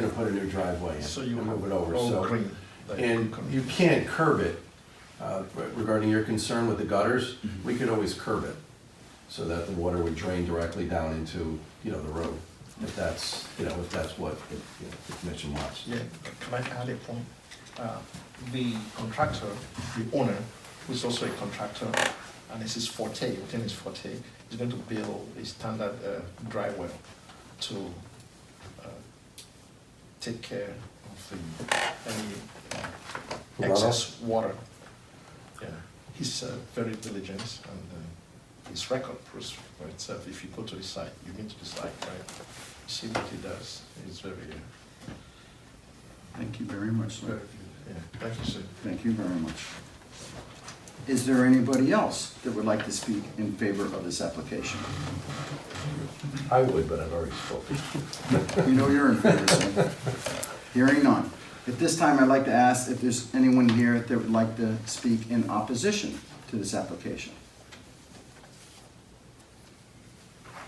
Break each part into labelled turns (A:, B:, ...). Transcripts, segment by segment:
A: gonna put a new driveway in.
B: So you
A: and Move
B: will
A: it over,
B: all
A: so.
B: clean, like-
A: And you can't curb it, uh, regarding your concern with the gutters,
B: Mm-hmm.
A: we could always curb it. So that the water would drain directly down into, you know, the road, if that's, you know, if that's what the you know, the commission wants.
B: Yeah, can I add a point? Uh, The contractor, the owner, who's also a contractor, and this is forte, within his forte, is going to build a standard uh, dry well to uh, take care of the, any uh, excess water. Yeah, he's uh, very diligent and uh, his record proves for itself. If you go to the site, you've been to the site, right? See what he does, he's very uh,
C: Thank you very much,
B: yeah,
C: sir.
B: Thank you, sir.
C: Thank you very much. Is there anybody else that would like to speak in favor of this application?
A: I would, but I've already spoken.
C: We know you're in favor, sir. Hearing none. At this time, I'd like to ask if there's anyone here that would like to speak in opposition to this application.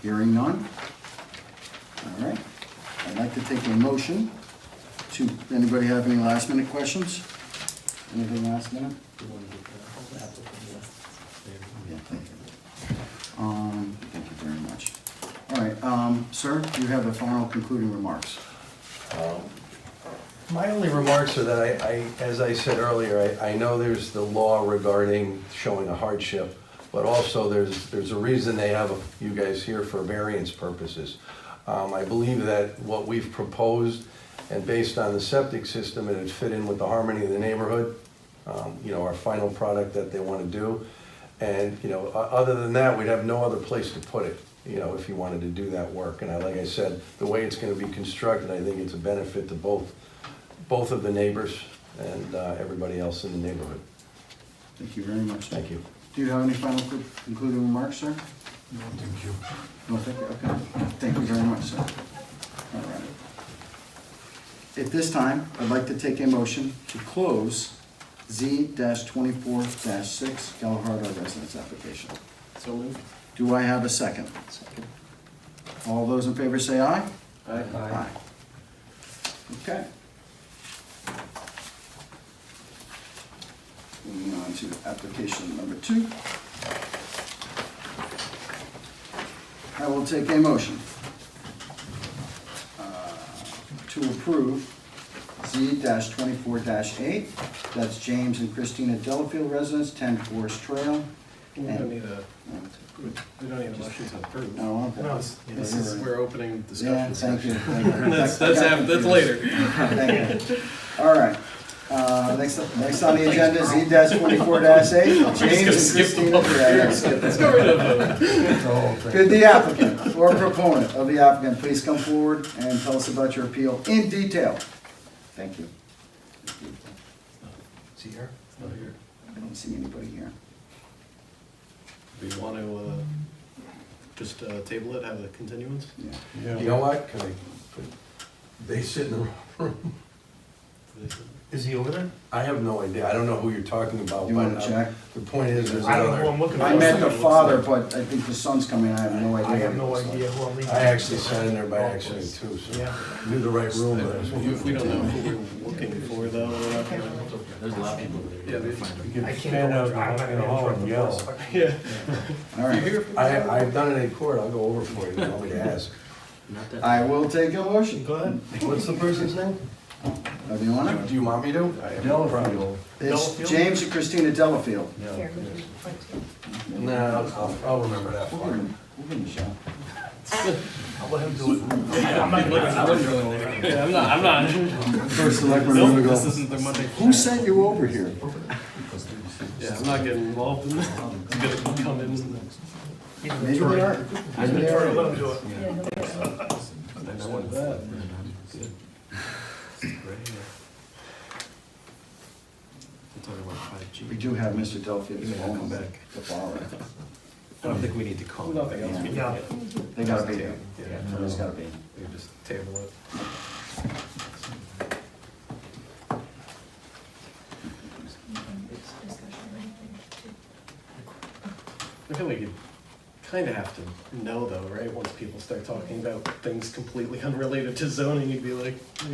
C: Hearing none? All right. I'd like to take a motion to, anybody have any last minute questions? Anything last minute? Yeah, thank you. Um, thank you very much. All right, um, sir, you have the final concluding remarks.
A: My only remarks are that I, I, as I said earlier, I, I know there's the law regarding showing a hardship, but also there's, there's a reason they have you guys here for variance purposes. Um, I believe that what we've proposed, and based on the septic system, it'd fit in with the harmony of the neighborhood, um, you know, our final product that they wanna do. And, you know, o- other than that, we'd have no other place to put it, you know, if you wanted to do that work. And I, like I said, the way it's gonna be constructed, I think it's a benefit to both, both of the neighbors and uh, everybody else in the neighborhood.
C: Thank you very much. sir.
A: Thank you.
C: Do you have any final co- concluding remarks, sir? No, thank you. No, thank you, okay. Thank you very much, sir. All right. At this time, I'd like to take a motion to close Z twenty-four six Galahado Residence application.
D: So moved.
C: Do I have a second?
D: Second.
C: All those in favor say aye?
D: Aye.
C: Okay. Moving on to application number two. I will take a motion uh, to approve Z twenty-four eight, that's James and Christina Delafield residents, ten Forest Trail.
D: We don't need a,
C: And-
D: we don't need a motion to approve.
C: No, okay.
D: No, it's- this is, we're opening
C: Yeah,
D: discussion.
C: thank you.
D: session.
C: thank you.
D: That's, that's, af- that's later.
C: Thank you. All right. Uh, Next, next on the agenda is E twenty-four eight. James and
D: gonna skip the
C: Christina.
D: public
C: Yeah, yeah,
D: hearing.
C: skip
D: Let's
C: it.
D: get rid of them.
C: Could the applicant or proponent of the applicant please come forward and tell us about your appeal in detail? Thank you.
A: See here?
D: No, you're-
C: I don't see anybody here.
D: Do you want to, uh, just, uh, table it, have a continuance?
C: Yeah.
A: You know what? Can I, they sit in the room.
E: Is he over there?
A: I have no idea. I don't know who you're talking about.
C: You wanna
A: but, uh,
C: check?
A: The point is, there's
E: I don't know who
A: another.
E: I'm looking for.
C: I met the father, but I think the son's coming. I have no idea.
E: I have no
C: what he looks
E: idea who I'm leaving.
A: I actually sat in there by accident too, so
E: Yeah.
A: I knew the right room. but I was-
D: If we don't know who we're looking for though, we're not gonna.
F: There's a lot of people
D: Yeah,
F: there.
D: they-
F: Find
E: I can't go, I'm not gonna interrupt the first fucking-
D: Yeah.
C: like. All right.
A: I, I've done it in court. I'll go over for you. if You want me to ask?
F: them. Not that-
C: I will take a motion.
E: Go ahead.
A: What's the person's name?
C: Uh, Do you want
A: Do
C: it?
A: you want me to? I have no problem.
C: It's
E: Delafield?
C: James and Christina Delafield.
G: Here, we can point to it.
A: No, I'll, I'll remember that
C: We'll give
A: part.
C: him- we'll give him a shot.
E: I'll let him do it.
F: I'm not looking- I wouldn't really want to-
D: Yeah, I'm not, I'm not.
C: First selectman, I'm
D: Nope,
C: gonna
D: this
C: go,
D: isn't the Monday.
C: who sent you over here?
D: Yeah, I'm not getting involved in this. I'm gonna come in and
C: Maybe they are.
E: I
C: Maybe they
E: prefer to
C: are.
E: let him do it.
G: Yeah, he'll get it.
D: We're Talking about five G.
C: We do have Mr. Delphine.
D: He may not come back.
C: The follower.
D: I don't think we need to call. Nothing
C: else.
E: Yeah.
C: They gotta be there.
D: Yeah.
C: Somebody's gotta be.
D: We just table it.
G: It's discussion or anything.
D: I feel like you kind of have to know though, right? Once people start talking about things completely unrelated to zoning, you'd be like,